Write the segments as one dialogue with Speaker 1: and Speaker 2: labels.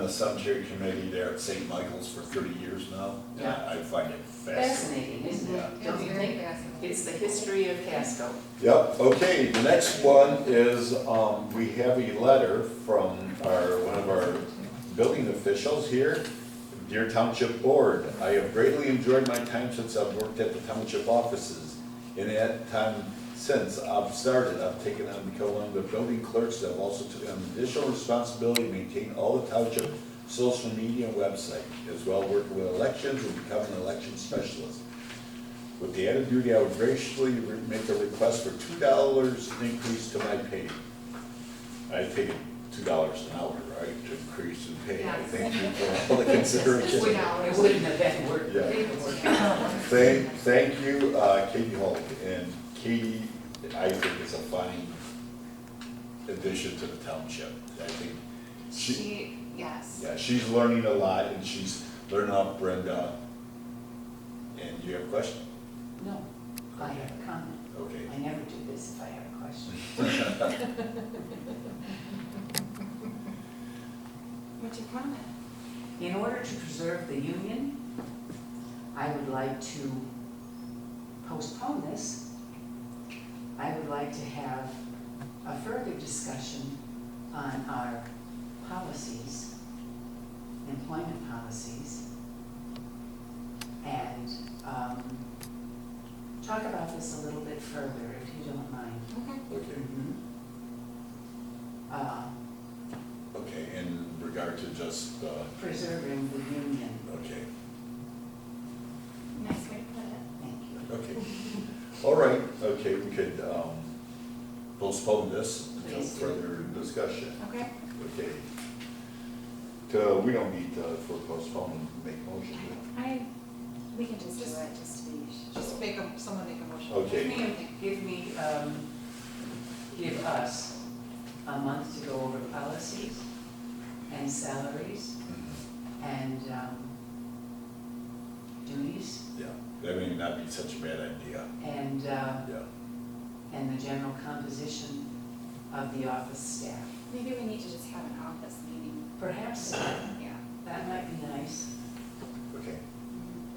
Speaker 1: the cemetery committee there at St. Michael's for thirty years now.
Speaker 2: Yeah.
Speaker 1: I find it fascinating.
Speaker 2: Fascinating, isn't
Speaker 1: Yeah.
Speaker 2: it? Don't you think? It's the history of Casco.
Speaker 1: Yep, okay, the next one is, um, we have a letter from our, one of our building officials here. Dear Township Board, I have greatly enjoyed my time since I've worked at the township offices. In that time since I've started, I've taken on become one of the building clerks, I've also taken on additional responsibility to maintain all the township social media and website, as well working with elections and becoming an election specialist. With the added duty, I would graciously re- make a request for two dollars increase to my pay. I think two dollars an hour, right, to increase in pay, I think, for all the consideration.
Speaker 3: Two
Speaker 2: It
Speaker 3: dollars.
Speaker 2: wouldn't have been worth
Speaker 1: Yeah. Thank, thank you, uh, Katie Holt, and Katie, I think is a fine addition to the township. I think she,
Speaker 3: She, yes.
Speaker 1: yeah, she's learning a lot, and she's learning off Brenda. And you have a question?
Speaker 2: No, I have a comment.
Speaker 1: Okay.
Speaker 2: I never do this if I have a question.
Speaker 3: What's your comment?
Speaker 2: In order to preserve the union, I would like to postpone this. I would like to have a further discussion on our policies, employment policies, and um, talk about this a little bit further, if you don't mind.
Speaker 3: Okay.
Speaker 1: Okay,
Speaker 2: Uh,
Speaker 1: okay, in regard to just, uh,
Speaker 2: Preserving the union,
Speaker 1: okay,
Speaker 3: Nice way to put it.
Speaker 2: thank you.
Speaker 1: okay. All right, okay, we could, um, postpone this until
Speaker 2: Please do.
Speaker 1: further discussion.
Speaker 3: Okay.
Speaker 1: Okay. To, we don't need to, for postpone, make motion. do
Speaker 3: I, we can just do
Speaker 4: Just-
Speaker 3: it, just to be.
Speaker 4: Just make a, someone make a motion.
Speaker 1: Okay.
Speaker 4: Give me a-
Speaker 2: Give me, um, give us a month to go over policies and salaries
Speaker 1: we?
Speaker 2: Mm-hmm.
Speaker 1: Mhm.
Speaker 2: and, um, duties
Speaker 1: Yeah, that may not be such a bad idea,
Speaker 2: and, uh,
Speaker 1: yeah.
Speaker 2: and the general composition of the office staff.
Speaker 3: Maybe we need to just have an office meeting,
Speaker 2: Perhaps
Speaker 3: yeah.
Speaker 2: that might be nice.
Speaker 1: Okay.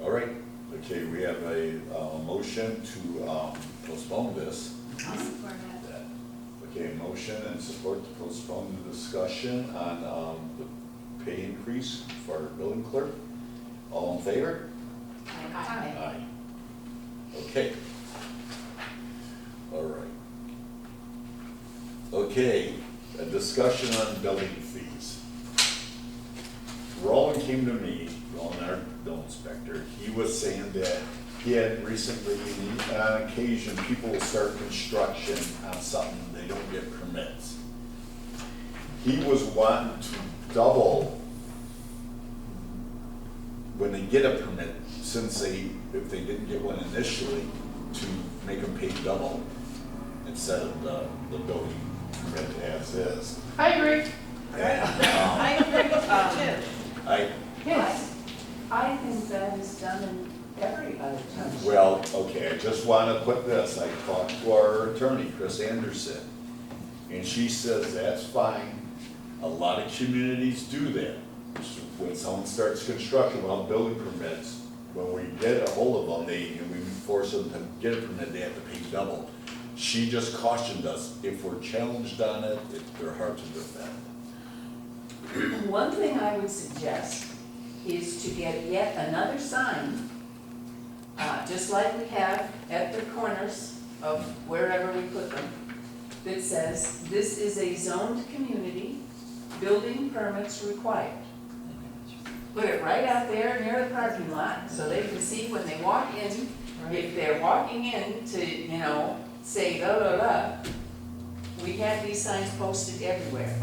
Speaker 1: All right, okay, we have a, uh motion to, um, postpone this.
Speaker 3: I'll
Speaker 2: Um,
Speaker 3: support it.
Speaker 1: Okay, motion and support to postpone the discussion on, um, the pay increase for our building clerk. All in favor?
Speaker 3: Aye.
Speaker 1: Aye. Okay. All right. Okay, a discussion on building fees. Roland came to me, Roland, our bill inspector, he was saying that he had recently, on occasion, people will start construction on something, they don't get permits. He was wanting to double when they get a permit, since they, if they didn't get one initially, to make them pay double instead of the, the building permit as is.
Speaker 4: I agree.
Speaker 1: And, um,
Speaker 4: I agree with that
Speaker 1: I,
Speaker 2: Yes, I think that is done in every other township.
Speaker 1: well, okay, I just wanna put this, I talked to our attorney, Chris Anderson, and she says that's fine. A lot of communities do that. When someone starts construction without building permits, when we get a hold of them, they, and we force them to get a permit, they have to pay double. She just cautioned us, if we're challenged on it, it- they're hard to defend.
Speaker 2: One thing I would suggest is to get yet another sign, uh, just like we have at the corners of wherever we put them, that says, this is a zoned community, building permits required. Put it right out there near the parking lot, so they can see when they walk in, if they're walking in to, you know, say, da, da, da. We have these signs posted everywhere.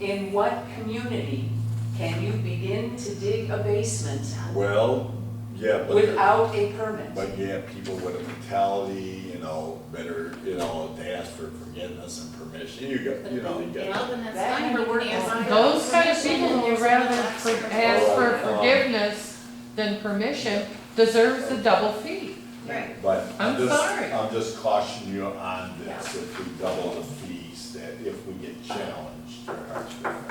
Speaker 2: In what community can you begin to dig a basement
Speaker 1: Well, yeah, but. they're-
Speaker 2: without a permit?
Speaker 1: But yeah, people with a mentality, you know, better, you know, they ask for forgiveness and permission, you got, you know, you got.
Speaker 3: then that's
Speaker 2: That
Speaker 3: fine,
Speaker 2: never
Speaker 3: you can
Speaker 2: worked
Speaker 3: ask
Speaker 2: on
Speaker 3: for
Speaker 5: Those kind of
Speaker 3: permission,
Speaker 5: people who
Speaker 3: there's
Speaker 5: would
Speaker 3: no
Speaker 5: rather
Speaker 3: box
Speaker 5: for-
Speaker 3: for-
Speaker 5: ask for
Speaker 1: Alright.
Speaker 5: forgiveness than permission deserves the double fee.
Speaker 3: Right.
Speaker 1: But I'm
Speaker 5: I'm
Speaker 1: just,
Speaker 5: sorry.
Speaker 1: I'm just cautioning you on this, if we double the fees, that if we get challenged, they're hard to defend.